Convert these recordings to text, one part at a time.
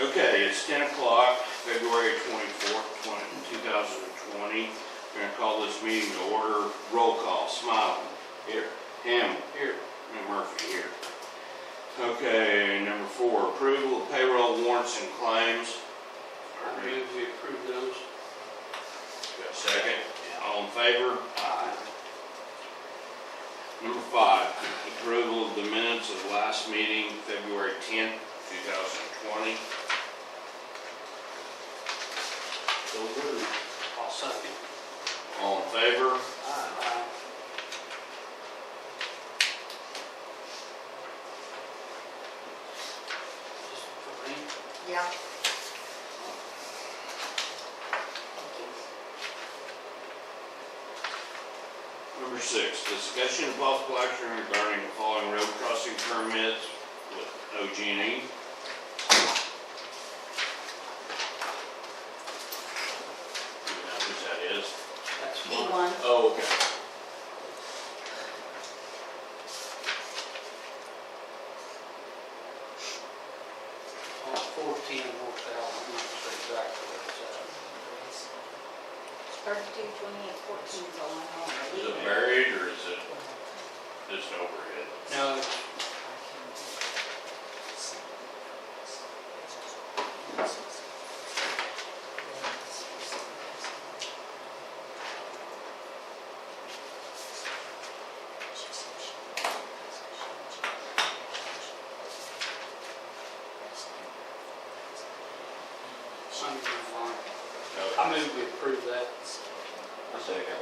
Okay, it's ten o'clock, February twenty-fourth, twenty, two thousand and twenty. We're gonna call this meeting to order, roll call, Smiley. Here. Ham. Here. And Murphy here. Okay, number four, approval of payroll warrants and claims. I move we approve those. Got a Second, all in favor? Number five, approval of the minutes of last meeting, February tenth, two thousand and twenty. So moved. I'll second. All in favor? Aye. Just for me? Yeah. Number six, discussion of possible action regarding the following road crossing permits with OG&E. Who's that is? That's E fine. one, Oh, okay. On fourteen North Allen, that's exactly what it's thirty-two, twenty-eight, fourteen is all I Is know. it buried or is it just overhead? at. No, it's Sunday morning. I move we approve that. I second.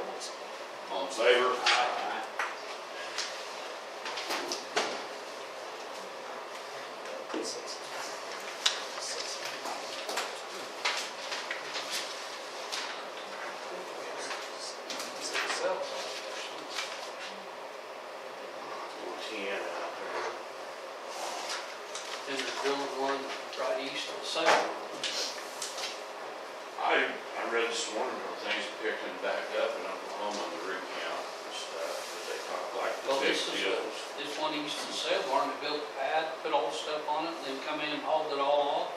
All in favor? Aye. Ten out there. Then the drilling one right east of Salem. I, I read this morning, how things are picking back up in Oklahoma, the rig count and stuff, but they talk like the Well, big this is a- deals. This one east of Salem, Martin built a pad, put all the stuff on it, then come in and hauled it all off.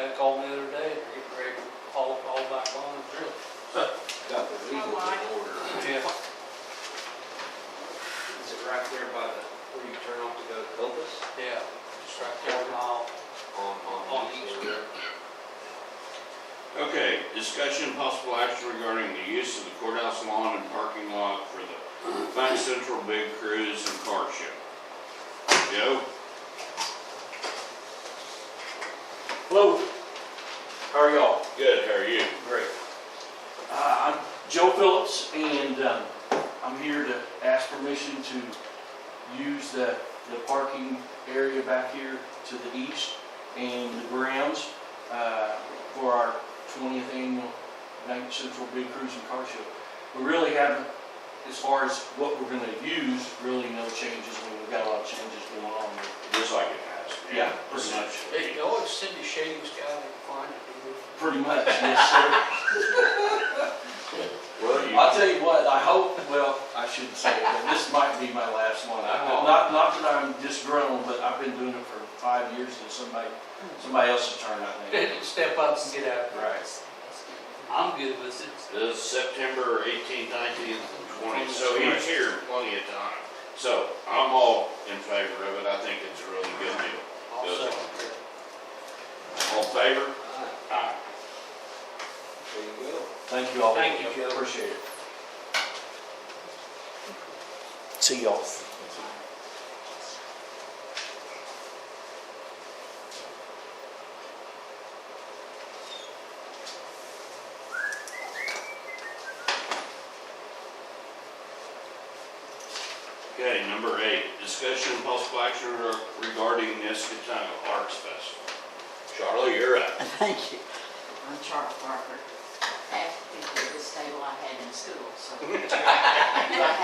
They called me the other day, they're getting ready to haul it all back on and drill. Got the Oh, legal I- order. Yeah. Is it right there by the, where you turn off to go to Copus? Yeah, it's right there now. On, On on. East. Okay, discussion and possible action regarding the use of the courthouse lawn and parking lot for the Bank Central Big Cruise and Car Show. Joe? Hello, how are y'all? Good, how are you? Great. Uh, I'm Joe Phillips, and um, I'm here to ask permission to use the, the parking area back here to the east and the grounds uh, for our 20th annual Night Central Big Cruise and Car Show. We really haven't, as far as what we're gonna use, really no changes, I mean, we've got a lot of changes going on. Just like it has. been. Yeah, pretty much. They always send the shadings guy to find it. Pretty much, yes, sir. Well, you, I'll tell you what, I hope, well, I shouldn't say it, but this might be my last one. I- Oh. Not, not that I'm disgruntled, but I've been doing it for five years and somebody, somebody else's turn, I think. They Step up and get out. Right. I'm good with it. this is September eighteenth, nineteenth, and twentieth, so he's here plenty of time. So I'm all in favor of it. I think it's a really good deal. I'll Good. second it. All in favor? Aye. There you go. Thank you all. Thank you, Joe. Appreciate it. See y'all. Okay, number eight, discussion and possible action regarding Nescatonga Arts Festival. Charlie, you're up. Thank you. I'm Charles Parker. Half the people at this table I had in school, so. I